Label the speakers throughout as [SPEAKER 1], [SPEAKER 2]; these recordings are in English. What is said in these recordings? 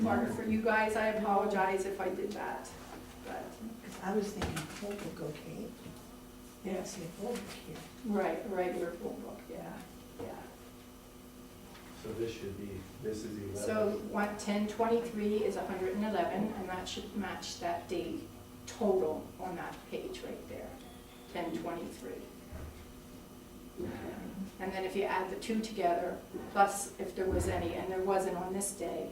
[SPEAKER 1] mark for you guys, I apologize if I did that, but,
[SPEAKER 2] I was thinking purple cocaine. Yeah, I see a purple here.
[SPEAKER 1] right, regular rule book, yeah, yeah.
[SPEAKER 3] So this should be, this is eleven.
[SPEAKER 1] So one, ten twenty-three is hundred and eleven, and that should match that day total on that page right there, ten twenty-three. And then if you add the two together, plus if there was any, and there wasn't on this day,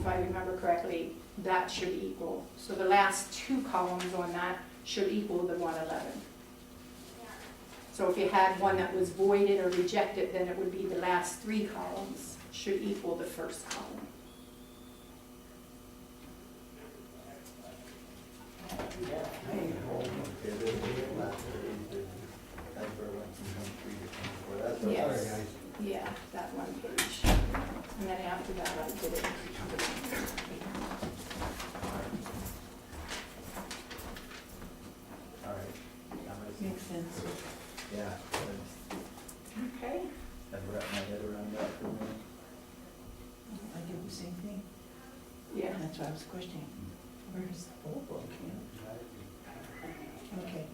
[SPEAKER 1] if I remember correctly, that should equal, so the last two columns on that should equal the one eleven. So if you had one that was voided or rejected, then it would be the last three columns should equal the first column.
[SPEAKER 3] Okay, then we have left for eight business. That's where it went from twenty-three to twenty-four. That's all
[SPEAKER 1] Yes.
[SPEAKER 3] right,
[SPEAKER 1] Yeah, that one page. And then after that, I did it.
[SPEAKER 3] guys. All right. I'm gonna see.
[SPEAKER 2] Makes sense.
[SPEAKER 3] Yeah, that's-
[SPEAKER 1] Okay.
[SPEAKER 3] I've wrapped my head around that for a minute.
[SPEAKER 2] I did the same thing.
[SPEAKER 1] Yeah. Mm-hmm.
[SPEAKER 2] That's why I was questioning. Where's the purple cocaine? Okay,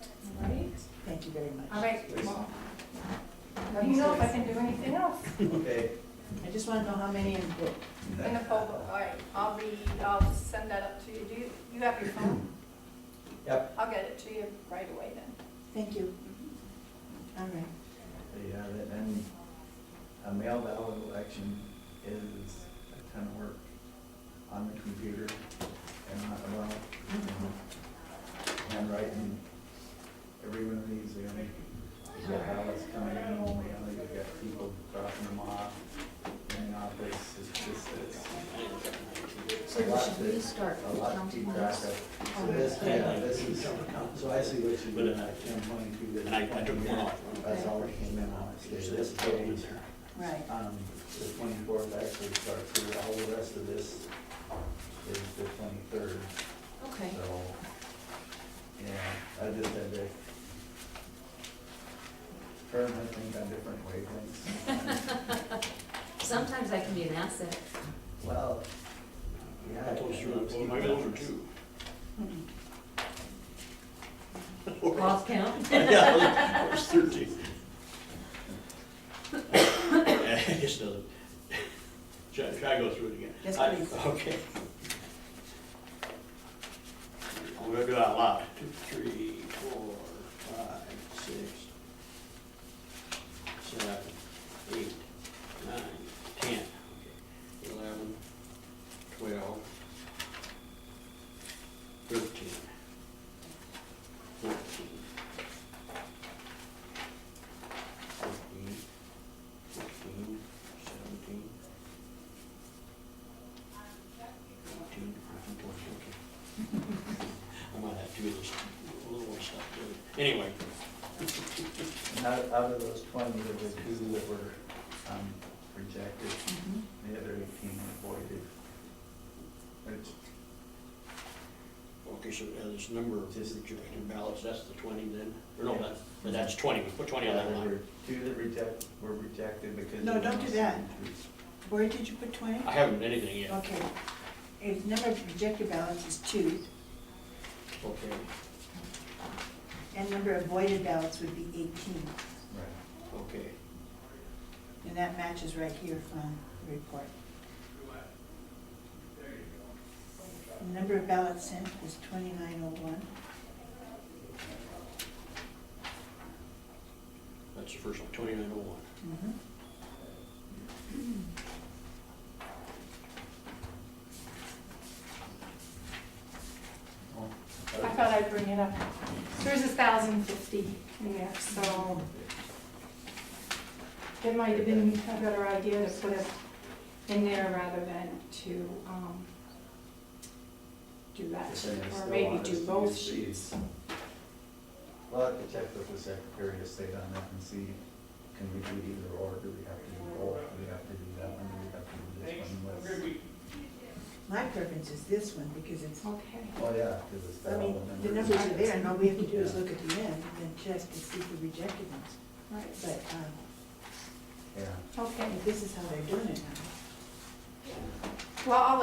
[SPEAKER 1] All right.
[SPEAKER 2] thank you very much.
[SPEAKER 1] All right. well, Let me know if I can do anything else
[SPEAKER 3] Okay.
[SPEAKER 2] I just want to know how many in book.
[SPEAKER 1] in the poll. book. All right, I'll be, I'll send that up to you. Do you, you have your phone?
[SPEAKER 3] Yep.
[SPEAKER 1] I'll get it to you right away then.
[SPEAKER 2] Thank you.
[SPEAKER 1] Mm-hmm.
[SPEAKER 2] All right.
[SPEAKER 3] There you have it, and a mail ballot election is a ton of work on the computer and not allowed.
[SPEAKER 2] Mm-hmm.
[SPEAKER 3] Handwriting, every one of these, you know, you got ballots coming in, only, you know, you got people dropping them off in the office, it's just, it's
[SPEAKER 2] So
[SPEAKER 3] a lot
[SPEAKER 2] should
[SPEAKER 3] to-
[SPEAKER 2] we start
[SPEAKER 3] a lot to
[SPEAKER 2] counting
[SPEAKER 3] keep track
[SPEAKER 2] those?
[SPEAKER 3] of. So this, yeah, this is, so I see what you
[SPEAKER 4] But
[SPEAKER 3] did,
[SPEAKER 4] then I-
[SPEAKER 3] ten twenty-two, this
[SPEAKER 4] And I- I took one off.
[SPEAKER 3] That's all that came in on it, is this page.
[SPEAKER 2] Right.
[SPEAKER 3] Um, the twenty-fourth actually starts here, all the rest of this is the twenty-third,
[SPEAKER 2] Okay.
[SPEAKER 3] so, yeah, I just had to turn my things on different wavelengths.
[SPEAKER 5] Sometimes that can be an asset.
[SPEAKER 3] Well, yeah. I
[SPEAKER 4] Those
[SPEAKER 3] can-
[SPEAKER 4] are, well, maybe those are two.
[SPEAKER 2] Mm-hmm.
[SPEAKER 5] Lost count?
[SPEAKER 4] Yeah, there's thirteen. I guess the, should I, should I go through it again?
[SPEAKER 2] Yes,
[SPEAKER 4] I-
[SPEAKER 2] please.
[SPEAKER 4] Okay. I'm gonna do it out loud. Two, three, four, five, six, seven, eight, nine, ten, okay, eleven, twelve, thirteen, fourteen, fifteen, sixteen, seventeen, eighteen, nineteen, twenty, okay. I might have to do this little more stuff, too. anyway.
[SPEAKER 3] And Out, out of those twenty, there were two that were, um, rejected, the other eighteen were voided. Which
[SPEAKER 4] Okay, so uh, this number of
[SPEAKER 3] Just-
[SPEAKER 4] rejected ballots, that's the twenty then? Or no, that's, that's twenty, we put twenty on that
[SPEAKER 3] Yeah, there were
[SPEAKER 4] line.
[SPEAKER 3] Two that reject, were rejected because.
[SPEAKER 2] No,
[SPEAKER 3] of
[SPEAKER 2] don't do
[SPEAKER 3] the
[SPEAKER 2] that.
[SPEAKER 3] signatures.
[SPEAKER 2] Where did you put twenty?
[SPEAKER 4] I haven't done anything yet.
[SPEAKER 2] Okay. If number of rejected ballots is two,
[SPEAKER 4] Okay,
[SPEAKER 2] and number of voided ballots would be eighteen.
[SPEAKER 3] Right.
[SPEAKER 4] okay.
[SPEAKER 2] And that matches right here from the report. The Number of ballots sent was twenty-nine oh one.
[SPEAKER 4] That's the first one, twenty-nine oh one.
[SPEAKER 3] Well,
[SPEAKER 1] I thought I'd bring it up. There's a thousand fifty in there, so it might have been a better idea to put it in there rather than to, um, do that,
[SPEAKER 3] But then they
[SPEAKER 1] or
[SPEAKER 3] still
[SPEAKER 1] maybe
[SPEAKER 3] want us
[SPEAKER 1] do
[SPEAKER 3] to
[SPEAKER 1] both
[SPEAKER 3] use these.
[SPEAKER 1] sheets.
[SPEAKER 3] Well, I have to check with the Secretary of State on that and see, can we do either or, do we have to do both, do we have to do that one, do we have to do this one? Let's-
[SPEAKER 2] My preference is this one, because it's,
[SPEAKER 1] Okay.
[SPEAKER 3] Oh, yeah, because it's
[SPEAKER 2] I
[SPEAKER 3] that
[SPEAKER 2] mean,
[SPEAKER 3] one.
[SPEAKER 2] the numbers are there, and all we have to do is look at the end, and then check to see the rejected ones.
[SPEAKER 1] Right,
[SPEAKER 2] But, um,
[SPEAKER 3] Yeah.
[SPEAKER 1] okay.
[SPEAKER 2] if this is how they're doing it now.
[SPEAKER 1] Well, I'll